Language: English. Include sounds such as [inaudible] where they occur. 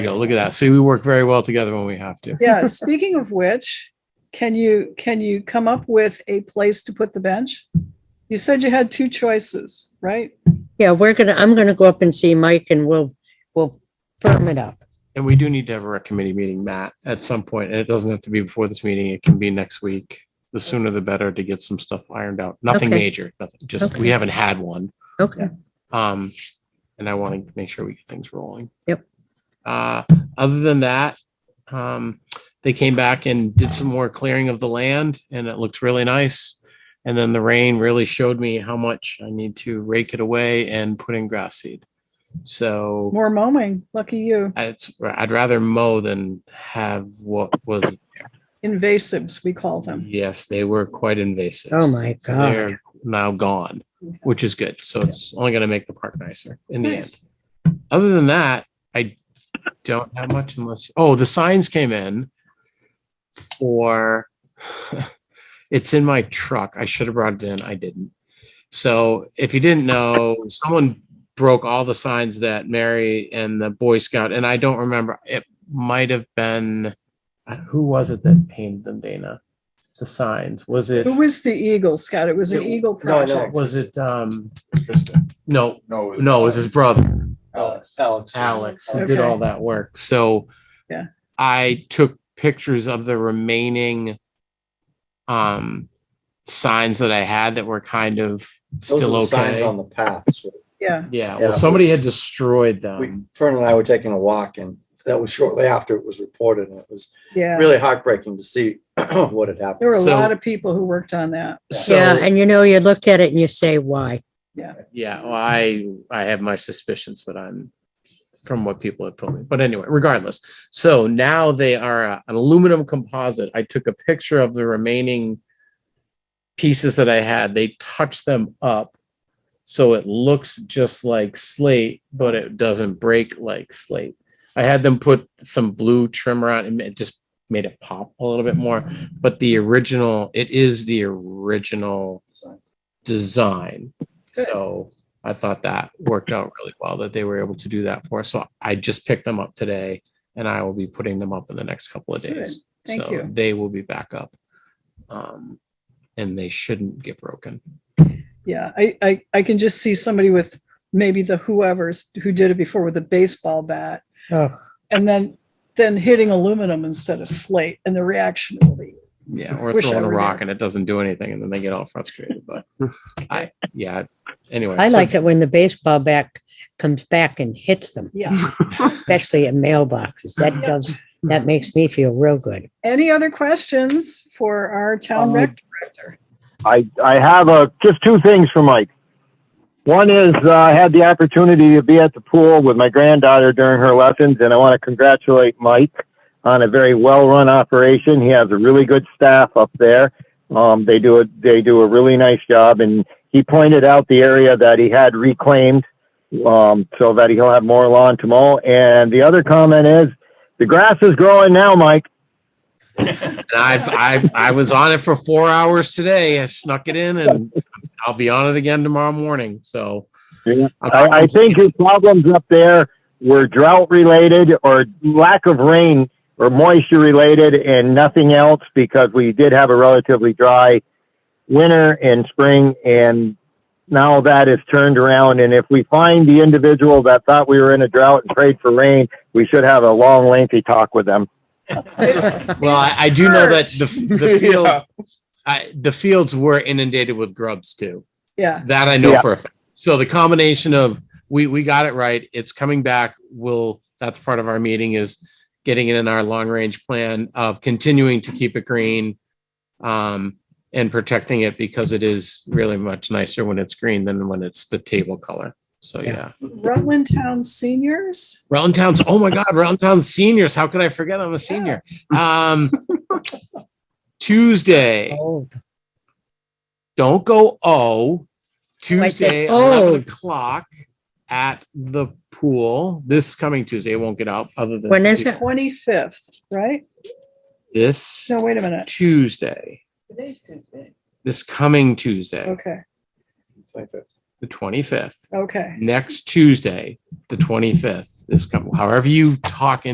we go. Look at that. See, we work very well together when we have to. Yeah, speaking of which, can you, can you come up with a place to put the bench? You said you had two choices, right? Yeah, we're gonna, I'm gonna go up and see Mike and we'll, we'll firm it up. And we do need to have a rec committee meeting, Matt, at some point, and it doesn't have to be before this meeting. It can be next week. The sooner the better to get some stuff ironed out. Nothing Okay. major, nothing, just, we Okay. haven't had one. Okay, Um, and I want to make sure we get things rolling. Yep. Uh, other than that, um, they came back and did some more clearing of the land and it looks really nice. And then the rain really showed me how much I need to rake it away and put in grass seed. So. More mowing, lucky you. It's, I'd rather mow than have what was, Invasives, we call them. yes, they were quite invasive. oh my So God. They're now gone, which is good. So it's only going to make the park nicer in the end. Nice. Other than that, I don't have much unless, oh, the signs came in for, [sighs] it's in my truck. I should have brought it in. I didn't. So if you didn't know, someone broke all the signs that Mary and the Boy Scout, and I don't remember, it might have been, uh, who was it that painted them, Dana? The signs, was it? Who was the Eagle Scout? It was an It- Eagle no, no. project. Was it, um, Krista. no, No. no, it was his brother, Alex. Alex. Alex, who did all that work. So Yeah. I took pictures of the remaining um signs that I had that were kind of Those are still the Signs on okay. the paths. Yeah, Yeah, Yeah. well, somebody had destroyed We, them. Fern and I were taking a walk and that was shortly after it was reported and it was yeah. really heartbreaking to see [clears throat] what had happened. There were a So- lot of people who worked on that. Yeah, So, and you know, you look at it and you say, why? yeah, well, I, I have my suspicions, but I'm from what people have told me. But anyway, regardless. So now they are uh, an aluminum composite. I took a picture of the remaining pieces that I had. They touched them up. So it looks just like slate, but it doesn't break like slate. I had them put some blue trim around and it just made it pop a little bit more. But the original, it is the original design. So I thought that worked out really well that they were able to do that for us. So I just picked them up today and I will be putting them up in the next couple of Good. days. Thank So you. They will be back up. Um, and they shouldn't get broken. Yeah, I, I, I can just see somebody with maybe the whoever's who did it before with a baseball bat Oh, and then, then hitting aluminum instead of slate and the reaction will be, Yeah, or Wish I throwing a were rock there. and it doesn't do anything and then they get all frustrated, [laughs] but I, yeah, anyway. I so- like it when the baseball bat comes back and hits them, yeah. especially in mailboxes. That does, that makes me feel real good. Any other questions for our town rec director? I, I have a, just two things for Mike. One is uh, I had the opportunity to be at the pool with my granddaughter during her lessons, and I want to congratulate Mike on a very well-run operation. He has a really good staff up there. Um, they do a they do a really nice job, and he pointed out the area that he had reclaimed, um, so that he'll have more lawn to mow. And the other comment is, the grass is growing now, Mike. And I, I, I was on it for four hours today. I snuck it in and I'll be on it again tomorrow morning, so. Yeah, I'm- I, I think his problems up there were drought related or lack of rain or moisture related and nothing else because we did have a relatively dry winter and spring and now that is turned around and if we find the individual that thought we were in a drought and prayed for rain, we should have a long lengthy talk with them. Well, I, I do know that the, the field, Yeah. I, the fields were inundated with grubs too. Yeah, That I know Yeah. for a fact. So the combination of we we got it right. It's coming back. We'll that's part of our meeting is getting it in our long range plan of continuing to keep it green, um, and protecting it because it is really much nicer when it's green than when it's the table color. So yeah, Yeah. Rutland Town seniors? Rutland Town's. Oh my God, Rutland Town seniors. How could I forget? I'm a senior. Um, [laughs] Tuesday. Oh, don't go oh I tuesday said 11 old. o'clock at the pool this coming tuesday it won't get out other than When is it? Twenty-fifth, right? this No, wait a minute. tuesday Today's Tuesday. this coming tuesday Okay, the 25th okay. next tuesday the 25th this come however you talk in